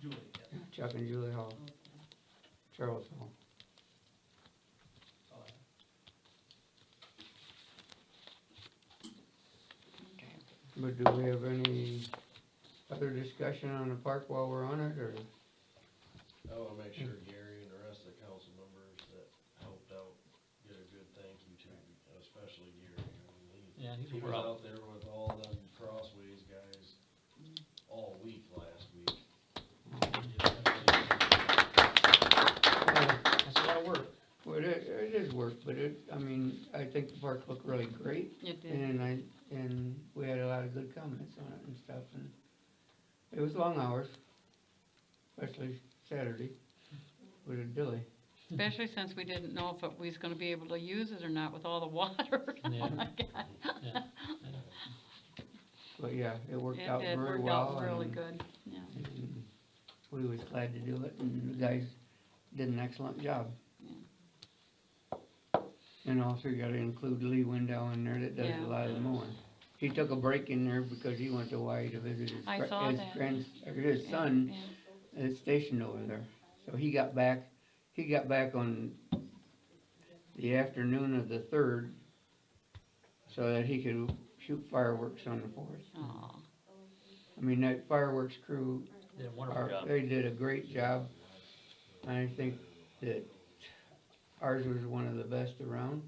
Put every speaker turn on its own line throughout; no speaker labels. Julie, yeah.
Chuck and Julie Hall,
Okay.
Charles Hall.
That's all I have.
But do we have any other discussion on the park while we're on it, or?
I wanna make sure Gary and the rest of the council members that helped out get a good thank you to, especially Gary. I mean, he-
Yeah, he's
He
a
was
pro.
out there with all them crossways guys all week last week.
Uh,
That's a lot of work.
Well, it, it is work, but it, I mean, I think the park looked really great,
It did,
and I, and we had a lot of good comments on it and stuff, and it was long hours, especially Saturday, with a dilly.
especially since we didn't know if it- we was gonna be able to use it or not with all the water.
Yeah.
Oh my God.
Yeah.
But yeah, it worked
It
out
did,
very
worked
well.
out really
and-
good, yeah.
and We was glad to do it, and the guys did an excellent job. And also you gotta include Lee Window in there that does
Yeah.
a lot of the mowing. He took a break in there because he went to Hawaii to visit his,
I
gr-
saw
his
that.
grand, or his
And-
son
and-
is stationed over there. So he got back, he got back on the afternoon of the third so that he could shoot fireworks on the fourth.
aw,
I mean, that fireworks crew
Did a
our-
wonderful job.
They did a great job. I think that ours was one of the best around.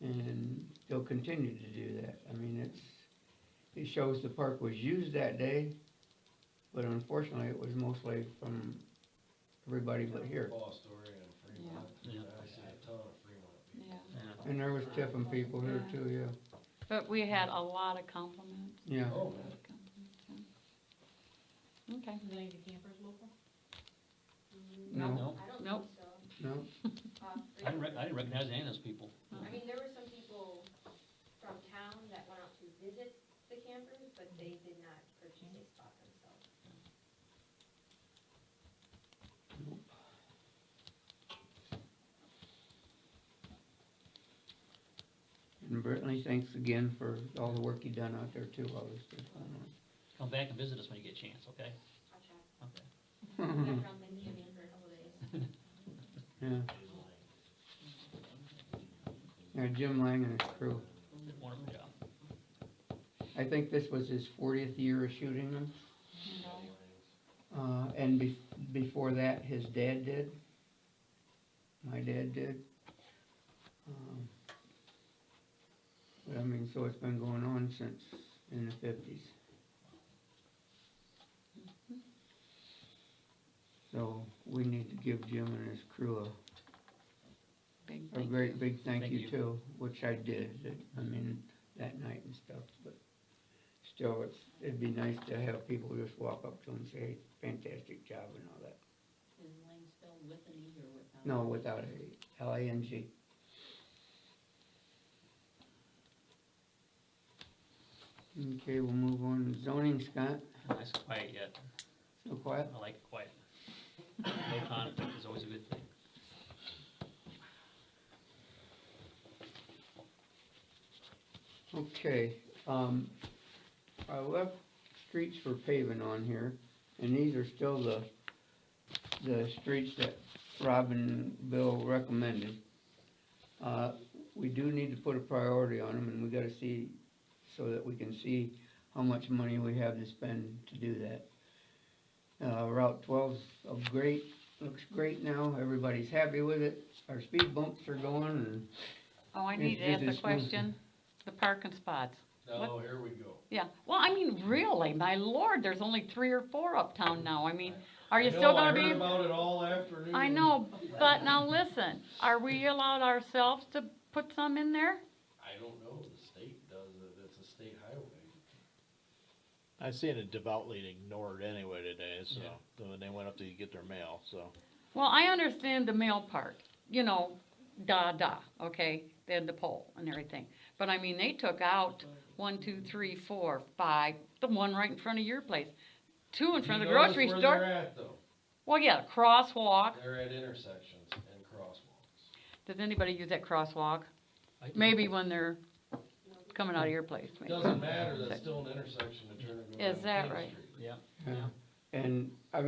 And they'll continue to do that. I mean, it's, it shows the park was used that day, but unfortunately, it was mostly from everybody but here.
Boss Story and Fremont, I see a ton of Fremont people.
yeah.
Yeah.
And there was Tiffin people here too, yeah,
But we had a lot of compliments,
yeah.
Oh, man.
compliments, yeah. Okay,
Is any of the campers local?
No,
No,
I don't
Nope.
think so.
no,
Uh,
I didn't rec- I didn't recognize any of those people.
I mean, there were some people from town that went out to visit the campers, but they did not purchase a spot themselves.
and Brittany, thanks again for all the work you done out there too, all this stuff going
Come back and visit us when you get a chance, okay?
I'll check.
Okay.
on.
I'm from Indiana for a couple days.
Yeah. Yeah, Jim Lang and his crew.
Did a wonderful job.
I think this was his fortieth year of shooting them. Uh, and be- before that, his dad did. My dad did. Um, But I mean, so it's been going on since in the fifties. So we need to give Jim and his crew a
big
a
thank you.
great big thank
Thank
you
you.
too, which I did, that- I mean, that night and stuff, but still, it's, it'd be nice to have people just walk up to them and say, "Hey, fantastic job and all that.
Is Lang spelled with an E or without?
No, without a L I N G. Okay, we'll move on to zoning, Scott,
Nice and quiet yet.
so quiet.
I like it quiet. No conflict is always a good thing.
Okay, um, I left streets for paving on here, and these are still the, the streets that Rob and Bill recommended. Uh, we do need to put a priority on them, and we gotta see, so that we can see how much money we have to spend to do that. Uh, Route twelve's a great, looks great now, everybody's happy with it, our speed bumps are going, and,
Oh, I
Is-
need to
is
ask
this
a
one-
question, the parking spots,
Oh, here we go.
yeah, well, I mean, really, my lord, there's only three or four uptown now, I mean, are you
I
still
know, I
gonna be?
heard about it all afternoon.
I know, but now listen, are we allowed ourselves to put some in there?
I don't know, the state does it, it's a state highway.
I seen it devoutly ignored anyway today, so,
Yeah.
when they went up to get their mail, so.
Well, I understand the mail part, you know, da da, okay, they had the poll and everything. But I mean, they took out one, two, three, four, five, the one right in front of your place, two in front of the
You notice
grocery
where
store.
They're at though,
Well, yeah, crosswalk,
they're at intersections and crosswalks.
does anybody use that crosswalk?
I do.
Maybe when they're coming out of your place, maybe.
Doesn't matter, that's still an intersection to turn and go down
Is that
King
right?
Street.
Yeah.
and I